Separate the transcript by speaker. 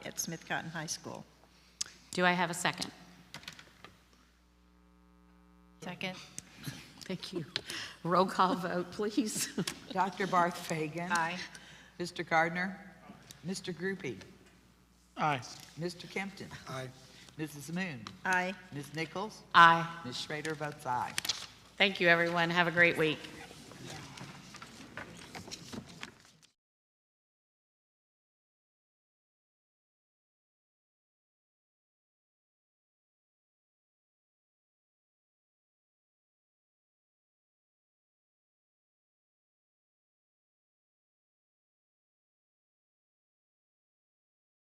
Speaker 1: at Smith Cotton High School.
Speaker 2: Do I have a second?
Speaker 3: Second.
Speaker 2: Thank you. Roll call vote, please.
Speaker 4: Dr. Barth Fagan.
Speaker 3: Aye.
Speaker 4: Mr. Gardner. Mr. Groupie.
Speaker 5: Aye.
Speaker 4: Mr. Kempton.
Speaker 5: Aye.
Speaker 4: Mrs. Moon.
Speaker 1: Aye.
Speaker 4: Ms. Nichols.
Speaker 2: Aye.
Speaker 4: Ms. Schrader votes aye.
Speaker 2: Thank you, everyone. Have a great week.